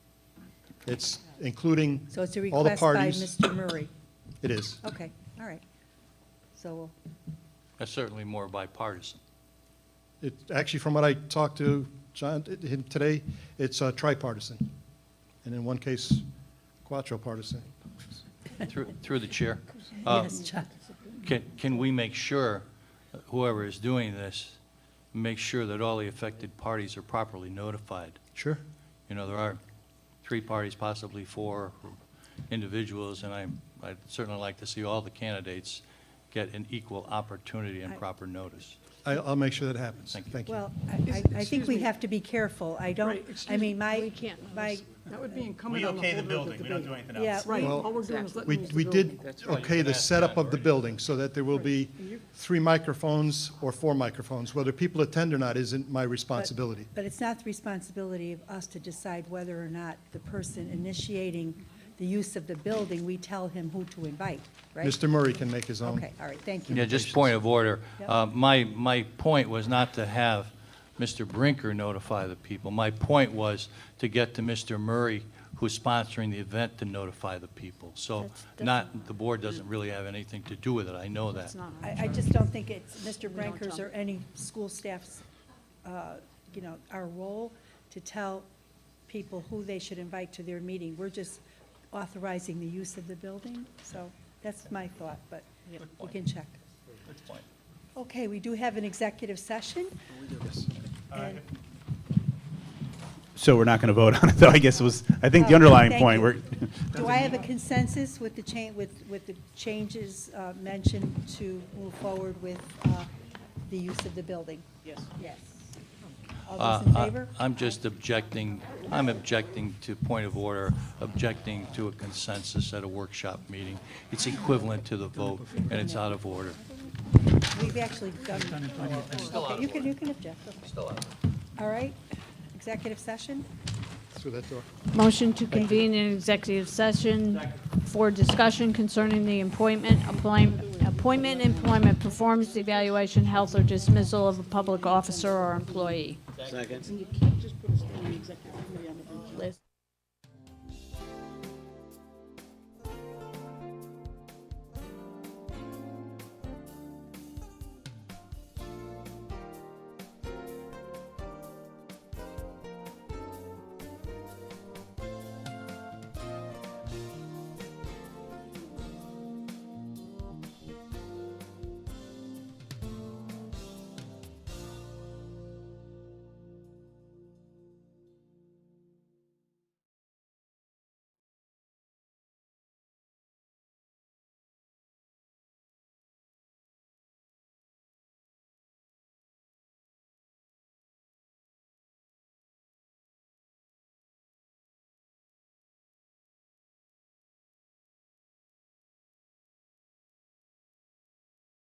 It's including So it's a all the request by parties. Mr. Murray. It is. Okay, all right. So, That's certainly more bipartisan. It, actually, from what I talked to John t- him today, it's uh, tripartisan. And in one case, quadripartisan. Through through the chair. uh, yes, John, Can can we make sure, whoever is doing this, make sure that all the affected parties are properly notified? Sure. You know, there are three parties, possibly four individuals, and I'm- I'd certainly like to see all the candidates get an equal opportunity and I- proper notice. I, I'll make sure that happens. Thank you. Thank you. well, I- I, I think Excuse we me. have to be careful. I don't, Right, excuse I mean, me. my, We can't. my, That would be incumbent We on the okay the holder of the building, we don't do debate. anything Yeah. else. Right, Well, all we're doing is We, letting them use we the building. did okay the setup of the building so that there will be three microphones or four microphones. Whether people attend or not isn't my responsibility. but it's not the responsibility of us to decide whether or not the person initiating the use of the building, we tell him who to invite, right? Mr. Murray can make his own. Okay, all right, thank you. Yeah, just point of order. Yep. Uh, My, my point was not to have Mr. Brinker notify the people. My point was to get to Mr. Murray, who's sponsoring the event, to notify the people. So That's- that's not, the board doesn't really have anything to do with it, I know that. It's not. I, I just don't think it's Mr. don't Branker's tell. or any school staff's, uh, you know, our role to tell people who they should invite to their meeting. We're just authorizing the use of the building, so that's my thought, but we can check. Okay, we do have an executive session. And- So we're not going to vote on it, though, I guess was, I think the Oh, underlying thank point, you. we're, Do I have a consensus with the cha, with, with the changes uh, mentioned to move forward with uh, the use of the building? Yes. Yes. All those in Uh, I- favor? I'm just objecting, I'm objecting to point of order, objecting to a consensus at a workshop meeting. It's equivalent to the vote, and it's out of order. We've actually done. Okay, You can, you can object. Still All right, executive session? Through that door. Motion to convene an executive session for discussion concerning the appointment, employment, appointment, employment, performance evaluation, health, or dismissal of a public officer or employee. And you can't just put us through an executive